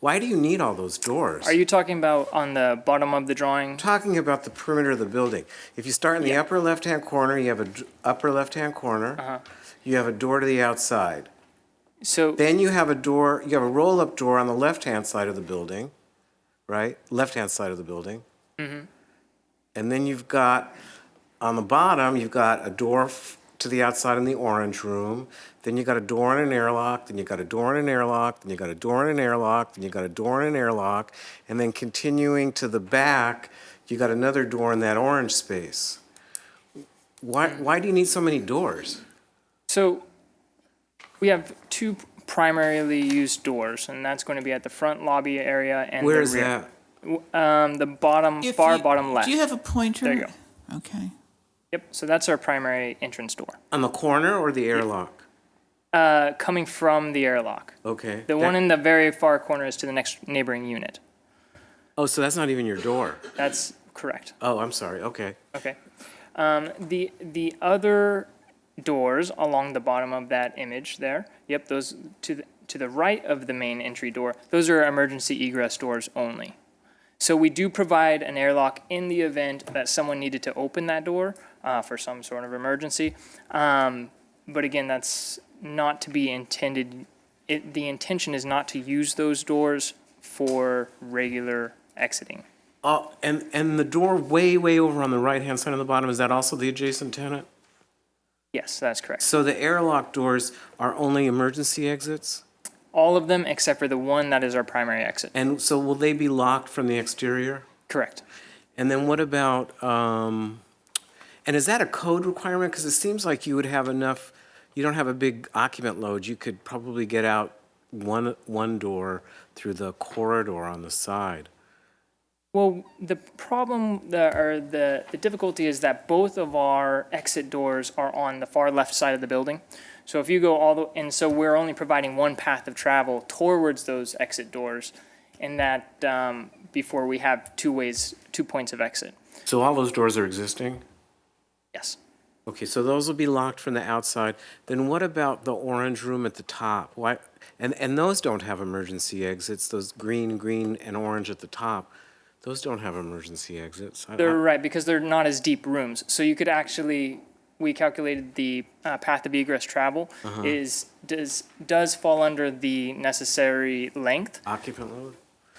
Why do you need all those doors? Are you talking about on the bottom of the drawing? talking about the perimeter of the building. If you start in the upper left-hand corner, you have a d- upper left-hand Uh-huh. corner. You have a door to the outside. So, Then you have a door, you have a roll-up door on the left-hand side of the building, right? Left-hand side of the building. Mm-hmm. And then you've got, on the bottom, you've got a door f- to the outside in the orange room. Then you got a door and an airlock, then you got a door and an airlock, then you got a door and an airlock, then you got a door and an airlock. And then continuing to the back, you got another door in that orange space. Why, why do you need so many doors? so we have two primarily used doors, and that's going to be at the front lobby area and Where the is rear. that? Um, the bottom, If far you- bottom left. Do you have a pointer? There you Okay. yep. So that's our primary entrance door. On the corner or the airlock? Uh, coming from the airlock. Okay. The That- one in the very far corner is to the next neighboring unit. Oh, so that's not even your door. That's correct. Oh, I'm sorry. Okay. Okay. Um, the the other doors along the bottom of that image there. Yep, those to the, to the right of the main entry door. Those are emergency egress doors only. So we do provide an airlock in the event that someone needed to open that door uh, for some sort of emergency. Um, but again, that's not to be intended. It, the intention is not to use those doors for regular exiting. Oh, and and the door way way over on the right hand side on the bottom is that also the adjacent tenant? Yes, that's correct. So the airlock doors are only emergency exits, All of them except for the one that is our primary exit. and so will they be locked from the exterior? Correct. And then what about? Um, and is that a code requirement? Because it seems like you would have enough. You don't have a big occupant load. You could probably get out one one door through the corridor on the side. Well, the problem the, or the, the difficulty is that both of our exit doors are on the far left side of the building. So if you go all the and so we're only providing one path of travel towards those exit doors, and that um, before we have two ways, two points of exit. So all those doors are existing. Yes. Okay, so those will be locked from the outside. Then what about the orange room at the top? Why, and, and those don't have emergency exits, those green, green, and orange at the top. Those don't have emergency exits. I- I- They're right because they're not as deep rooms. So you could actually, we calculated the uh, path of egress travel Uh-huh. is does does fall under the necessary length. Occupant load?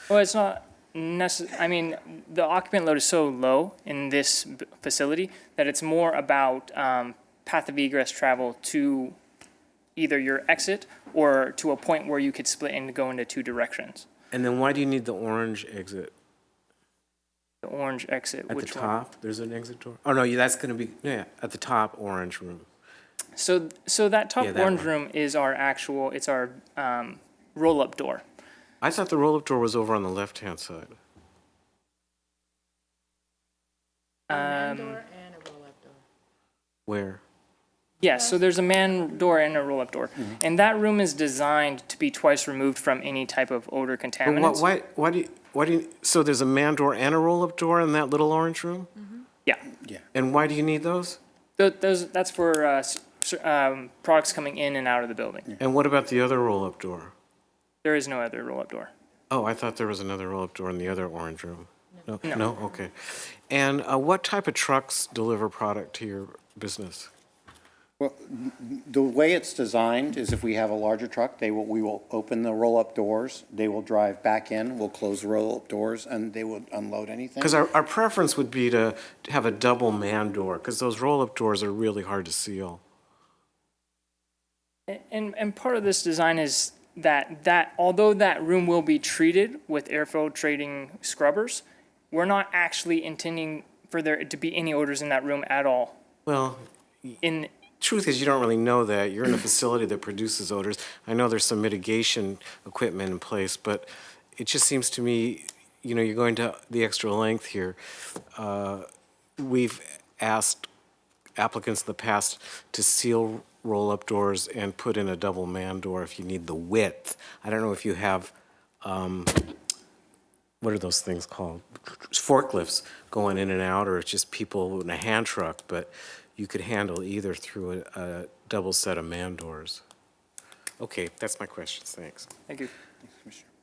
Well, it's not necess- I mean, the occupant load is so low in this b- facility that it's more about um, path of egress travel to either your exit or to a point where you could split and go into two directions. And then why do you need the orange exit? The orange exit, At which the one? top, there's an exit door? Oh, no, yeah, that's going to be, yeah, at the top, orange room. So, so that top Yeah, that orange one. room is our actual, it's our um, roll-up door. I thought the roll up door was over on the left hand side. Where? Yes, so there's a man door and a roll-up door, Mm-hmm. and that room is designed to be twice removed from any type of odor But contaminants. why, why, why do you, why do you, so there's a man door and a roll up door in that little orange room? Yeah, And why do you need those? Tho- those that's for uh, s- s- um, products coming in and out of the building. And what about the other roll up door? There is no other roll-up door. Oh, I thought there was another roll up door in the other orange room. No, no, okay. And uh, what type of trucks deliver product to your business? Well, the way it's designed is if we have a larger truck, they will, we will open the roll-up doors, they will drive back in, we'll close the roll-up doors, and they will unload anything. Because our, our preference would be to to have a double man door, because those roll up doors are really hard to seal. A- And and part of this design is that that although that room will be treated with air filtrating scrubbers, we're not actually intending for there to be any odors in that room at all. Well, In truth is, you don't really know that. You're in a facility that produces odors. I know there's some mitigation equipment in place, but it just seems to me, you know, you're going to the extra length here. Uh, we've asked applicants in the past to seal roll-up doors and put in a double man door if you need the width. I don't know if you have, um, what are those things called? Forklifts going in and out, or it's just people in a hand truck, but you could handle either through a, a double set of man doors. Okay, that's my questions, thanks. thank you.